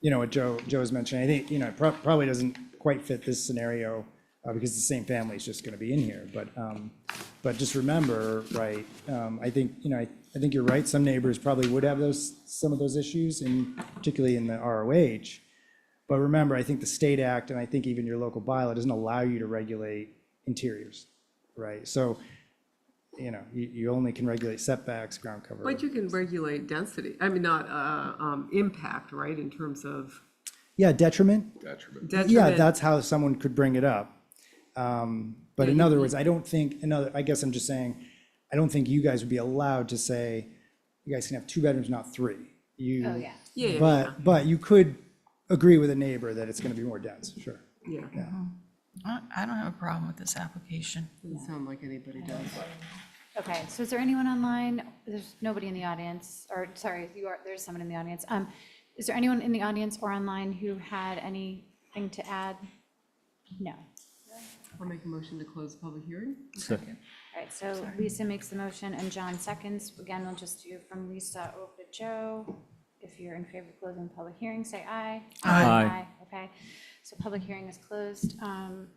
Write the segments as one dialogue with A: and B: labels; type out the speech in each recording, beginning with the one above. A: you know, what Joe, Joe's mentioned, I think, you know, it prob- probably doesn't quite fit this scenario uh, because the same family is just going to be in here. But, um, but just remember, right, um, I think, you know, I, I think you're right. Some neighbors probably would have those, some of those issues and particularly in the ROH. But remember, I think the state act and I think even your local bylaw doesn't allow you to regulate interiors, right? So, you know, you, you only can regulate setbacks, ground cover.
B: But you can regulate density, I mean, not, uh, um, impact, right, in terms of
A: Yeah, detriment,
C: detriment.
A: Yeah,
B: detriment.
A: that's how someone could bring it up. Um, But in other words, I don't think, another, I guess I'm just saying, I don't think you guys would be allowed to say, you guys can have two bedrooms, not three. You.
D: Oh, yeah.
B: Yeah, yeah,
A: But, but you could agree with a neighbor that it's gonna be more dense, sure.
B: yeah, yeah.
E: I I don't have a problem with this application.
B: Doesn't sound like anybody does.
D: Okay, so is there anyone online? There's nobody in the audience, or sorry, you are, there's someone in the audience. Um, is there anyone in the audience or online who had anything to add? No. All
B: I'll make a motion to close the public hearing.
D: right, so Lisa makes the motion and John seconds. Again, we'll just do from Lisa over to Joe. If you're in favor of closing the public hearing, say aye.
E: Aye.
D: Aye. Okay, so public hearing is closed. Um,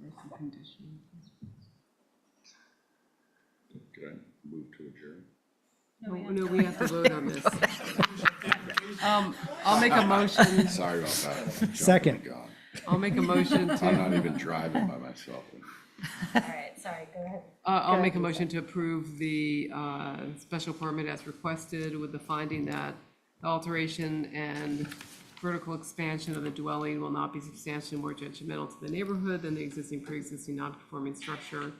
B: There are some conditions.
C: Could I move to adjourn?
B: No, no, we have to vote on this. Um, I'll make a motion,
C: Sorry about that. I'm jumping the
A: Second.
C: gun.
B: I'll make a motion
C: I'm
B: to,
C: not even driving by myself.
D: all right, sorry, go ahead.
B: uh, I'll make a motion to approve the, uh, special permit as requested with the finding that the alteration and vertical expansion of the dwelling will not be substantially more detrimental to the neighborhood than the existing pre-existing non-conforming structure.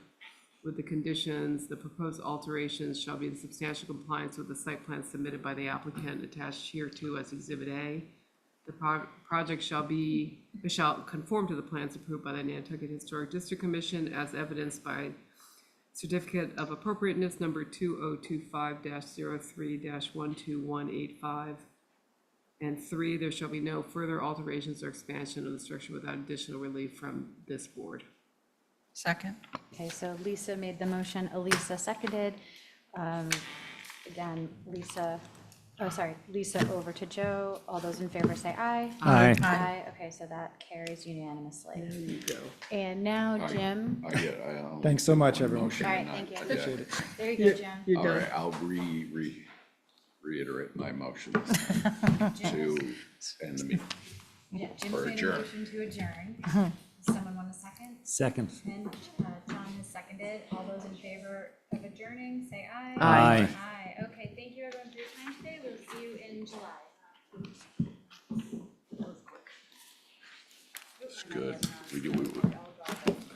B: With the conditions, the proposed alterations shall be in substantial compliance with the site plan submitted by the applicant attached here to as exhibit A. The pro- project shall be, shall conform to the plans approved by the Nantucket Historic District Commission as evidenced by certificate of appropriateness number two oh two five 3 one two one eight five. And three, there shall be no further alterations or expansion of the structure without additional relief from this board.
E: Second?
D: Okay, so Lisa made the motion, Elisa seconded. Um, Again, Lisa, oh, sorry, Lisa over to Joe. All those in favor say aye.
B: Aye.
D: Aye, okay, so that carries unanimously.
B: There you go.
D: And now Jim,
C: I get, I. um, I'll-
A: Thanks so much,
C: one
A: everyone.
C: motion
D: All right,
C: and I-
D: thank you.
C: I get
D: Appreciate
C: it.
D: there you go, Jim.
B: You're
C: All
B: done.
C: right, I'll re, re, reiterate my motion to end the meeting.
D: Yeah, Jim
C: Or
D: made a
C: adjourn.
D: motion to adjourn. Does Someone want a second?
F: Second.
D: And uh, John has seconded. All those in favor of adjourning, say aye.
F: Aye.
D: Aye, okay, thank you everyone for your time today. We'll see you in July.
C: It's good. We do, we, we-